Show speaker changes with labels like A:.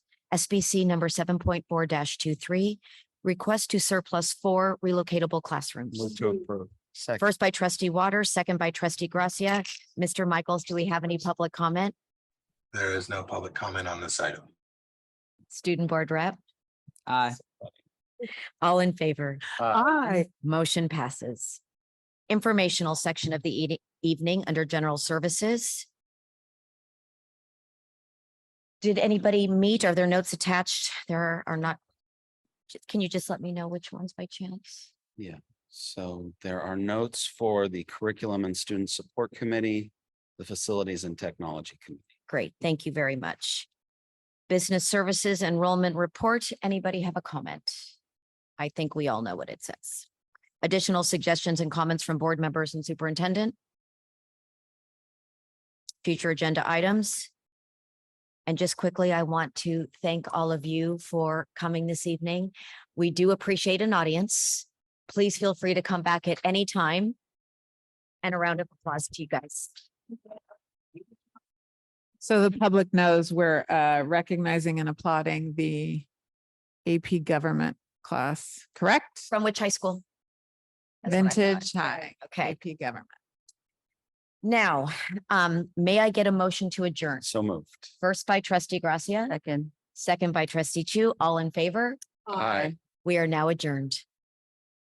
A: SBC number seven point four 23 request to surplus four relocatable classrooms.
B: Move to approve.
C: Second.
A: First by trustee Waters, second by trustee Gracia. Mr. Michaels, do we have any public comment?
D: There is no public comment on this item.
A: Student board rep,
C: Aye.
A: all in favor?
C: Aye.
A: Motion passes. Informational section of the eating- evening under general services. Did anybody meet? Are there notes attached? There are not. Ju- Can you just let me know which ones by chance?
C: So there are notes for the Curriculum and Student Support Committee, the Facilities and Technology Committee.
A: Great, thank you very much. Business Services Enrollment Report, anybody have a comment? I think we all know what it says. Additional suggestions and comments from board members and superintendent? Future agenda items? And just quickly, I want to thank all of you for coming this evening. We do appreciate an audience. Please feel free to come back at any time. And a round of applause to you guys.
E: So the public knows we're uh, recognizing and applauding the AP government class, correct?
A: From which high school? That's what I thought.
E: Vintage High
A: Okay,
E: AP government.
A: now, um, may I get a motion to adjourn?
C: So moved.
A: First by trustee Gracia. Second. Second by trustee Chu. All in favor?
C: Aye.
A: We are now adjourned.